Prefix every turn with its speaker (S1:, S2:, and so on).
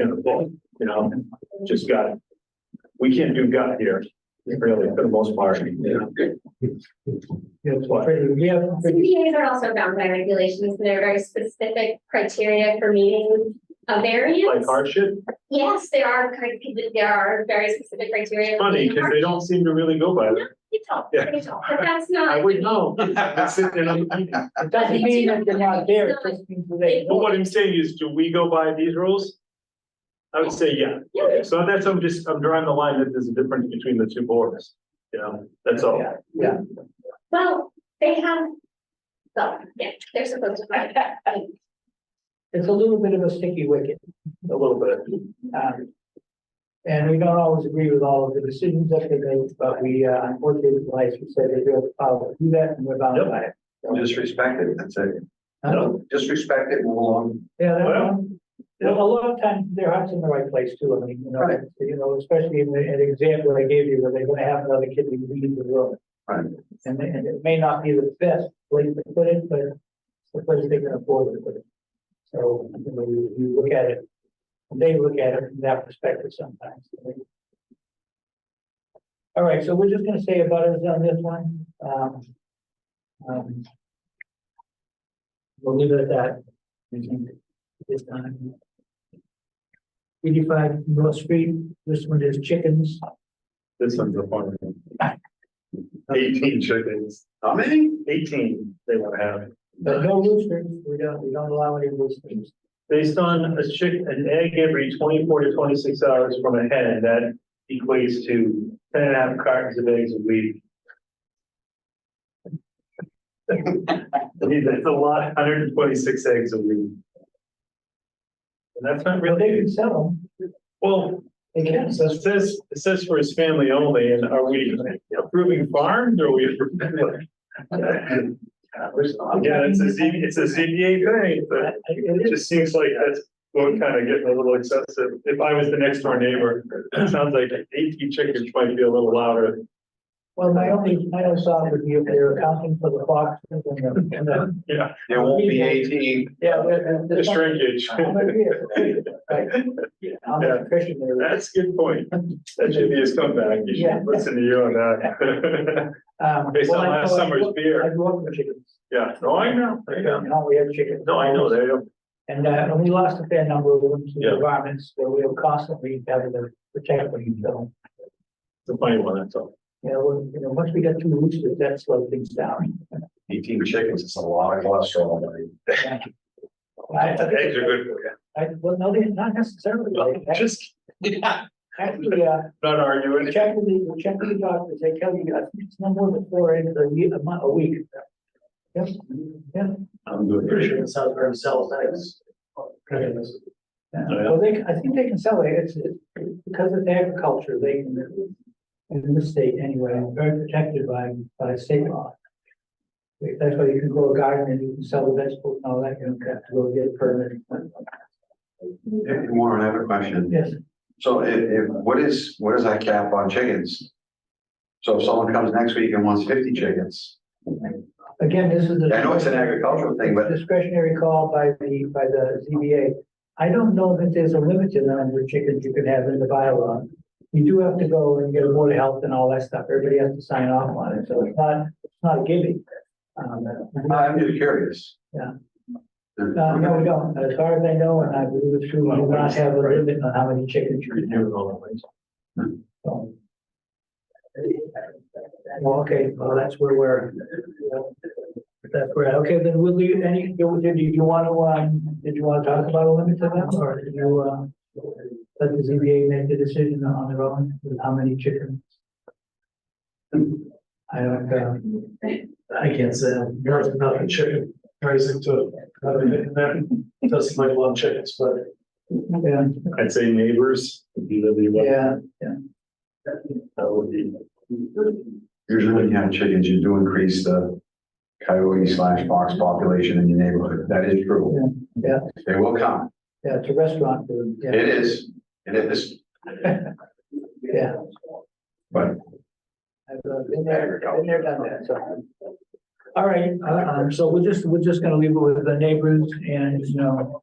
S1: in the book, you know, just got, we can't do gut here, really, for the most part, you know. That's why,
S2: Yeah.
S3: CPAs are also bound by regulations, and there are very specific criteria for meeting a
S1: like
S3: variance.
S1: hardship,
S3: Yes, there are, cri- there are very specific criteria.
S1: it's
S3: for
S1: funny,
S3: meeting
S1: because they don't seem to really go by that.
S3: hardship. It's all-
S1: Yeah.
S3: it's all- but that's
S1: I
S3: not.
S1: would know. I've seen it on the-
S2: It doesn't mean that they're not there, it just means that they.
S1: But what I'm saying is, do we go by these rules? I would say, yeah.
S3: Yeah.
S1: So that's, I'm just, I'm drawing the line that there's a difference between the two boards, you know, that's all.
S2: Yeah.
S3: Well, they have, well, yeah, they're supposed to.
S2: It's a little bit of a sticky wicket,
S1: A little bit.
S2: um. And we don't always agree with all of the decisions that they make, but we, uh, unfortunately, like you said, they do have the power to do that, and we're bound by it.
S4: Just respect it, that's it.
S2: Huh?
S4: Just respect it, move along.
S2: Yeah, that
S1: Well,
S2: one, well, a lot of times their heart's in the right place too, I mean, you know,
S4: Right.
S2: you know, especially in the, in the example I gave you, where they're gonna have another kid who leaves the room.
S4: Right.
S2: And, and it may not be the best place to put it, but it's the place they can afford to put it. So, you know, you, you look at it, they look at it from that perspective sometimes. All right, so we're just gonna say about it on this one, um. um, We'll leave it at that. I think, at This time. Eighty-five North Street, this one is chickens.
S1: This one's a fun one. Eighteen chickens. How many? Eighteen they want to have.
S2: But no roosters, we don't, we don't allow any roosters.
S1: Based on a chick, an egg every twenty-four to twenty-six hours from a hen, that equates to ten and a half cartons of eggs a week. Geez, That's a lot, hundred and twenty-six eggs a week. And that's not
S2: Well, they
S1: really,
S2: can sell them,
S1: well,
S2: they can,
S1: so
S2: so
S1: it says, it says for his family only, and are we approving farms or are we? approving- Yeah, it's a Z, it's a ZBA thing, but.
S2: I- I-
S1: It
S2: it is-
S1: just seems like that's, we're kind of getting a little excessive. If I was the next door neighbor, it sounds like eighteen chickens might be a little louder.
S2: Well, my only, my only thought would be if they're accounting for the foxes and the, and the,
S1: Yeah,
S4: There won't be eighteen.
S2: yeah, the-
S1: the
S2: the.
S1: shrinkage.
S2: I'm gonna be a- right, I'm a Christian there.
S1: That's a good point. That should be his comeback. You
S2: Yeah.
S1: should listen to you on that.
S2: Um,
S1: Based
S2: well,
S1: on
S2: I
S1: last
S2: know I
S1: summer's
S2: grew up- I
S1: beer.
S2: grew up with chickens.
S1: Yeah, no, I know, I know.
S2: Now we have chickens.
S1: No, I know, they don't.
S2: And, uh, and we lost a fair number of them to
S1: Yeah.
S2: environments where we were constantly having to protect them, so.
S1: It's a funny one, that's all.
S2: You know, when- you know, once we got two roosters, that slowed things down.
S4: Eighteen chickens, it's a lot of cholesterol. buddy.
S2: I- I think-
S1: Eggs are good for you.
S2: I, well, no, they not necessarily.
S1: Well, Just
S2: Actually, uh,
S1: not arguing.
S2: check with the, check with the doctor, they tell you, I think it's no more than four eggs a year, a month, a week. Yes, yeah.
S4: I'm doing pretty sure.
S2: it sells for themselves, eggs. Well, they, I think they can sell it, it's, it's because of agriculture, they can, in this state anyway, very protected by, by state law. That's why you can grow a garden and you can sell the vegetables and all that, you don't have to go get a permit.
S4: Hey, Warren, I have a question.
S2: Yes,
S4: So if, if, what is, what is that cap on chickens? So if someone comes next week and wants fifty chickens,
S2: again, this is the.
S4: I know it's an agricultural thing, but
S2: discretionary call by the, by the ZBA. I don't know that there's a limit to the number of chickens you can have in the bylaw. You do have to go and get a board of health and all that stuff. Everybody has to sign off on it, so it's not, it's not a giving. Um,
S4: I'm just curious.
S2: Yeah. uh, no, we don't. As far as I know, and I believe it's true, we do not have a limit on how many chickens you can have. So. Well, okay, well, that's where we're. That's where, okay, then we'll leave any, do, did you, you wanna, um, did you wanna talk about a limit to that, or did you, uh, let the ZBA make the decision on their own with how many chickens? I don't, um,
S5: I can't say, I'm not, not a chicken, raising to, not a, that doesn't like a lot of chickens, but.
S2: yeah,
S1: I'd say neighbors, would be really what-
S2: yeah,
S1: that would be.
S4: Usually when you have chickens, you do increase the coyote slash fox population in your neighborhood. That is true.
S2: Yeah,
S4: They will come.
S2: yeah, it's a restaurant, food, yeah,
S4: It is, it is,
S2: yeah.
S4: but
S2: I've uh, been there, been there, done that, so. All right, uh, um, so we're just, we're just gonna leave it with the neighbors and, you know,